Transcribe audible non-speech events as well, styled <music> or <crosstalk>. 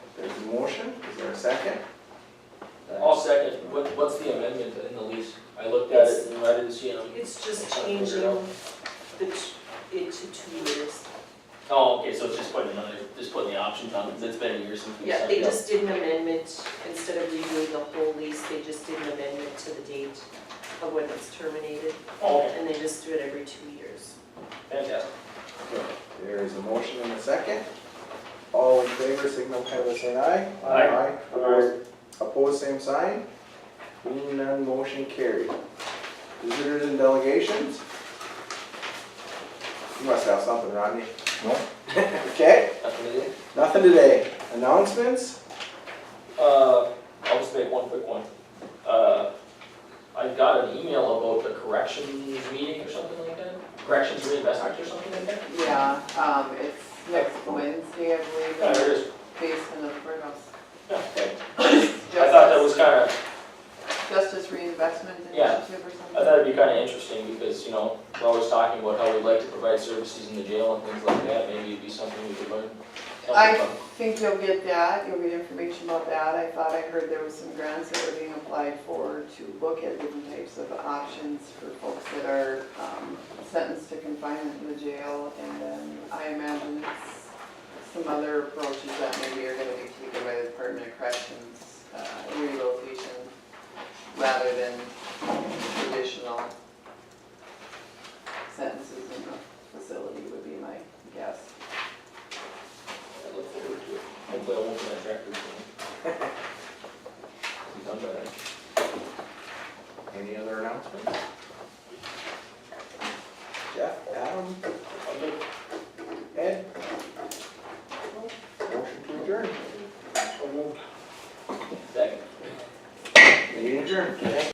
motion, is there a second? I'll second, what, what's the amendment in the lease? I looked at it and I didn't see them. It's just changing the, t- it to two years. Oh, okay, so it's just putting another, just putting the options on, because it's been a year since we Yeah, signed they it up. just did an amendment, instead of redoing the whole lease, they just did an amendment to the date of when it's terminated. Oh, okay, And they just do it every two years. fantastic. Okay, There is a motion and a second. All in favor, signal by saying aye. Aye. Opposed, opposed, same sign. Being none, motion carried. Visitors and delegations? You must have something, Rodney. No. <laughs> Okay, Nothing to do? nothing today. Announcements? Uh, I'll just make one quick one. Uh, I got an email about the corrections meeting or something like that, corrections reinvestment or something like that. Yeah, um, it's next Wednesday, I believe, Yeah, there in it is. the basement of Burgos. Okay. I thought that was kinda, Justice Reinvestment Yeah. Initiative or I something? thought it'd be kinda interesting because, you know, we're always talking about how we'd like to provide services in the jail and things like that, maybe it'd be something we could learn. something I- from. Think you'll get that, you'll get information about that, I thought I heard there was some grants that were being applied for to look at different types of options for folks that are, um, sentenced to confinement in the jail, and then I imagine it's some other approaches that maybe are gonna be taken by the Department of Corrections, uh, rehabilitation, rather than traditional sentences in the facility would be my guess. I look forward to it. Hopefully I won't be that record soon. <laughs> Be done by then. Any other announcements? Jeff, Adam, I'm good. Ed? Motion to adjourn. Second. Meeting adjourned.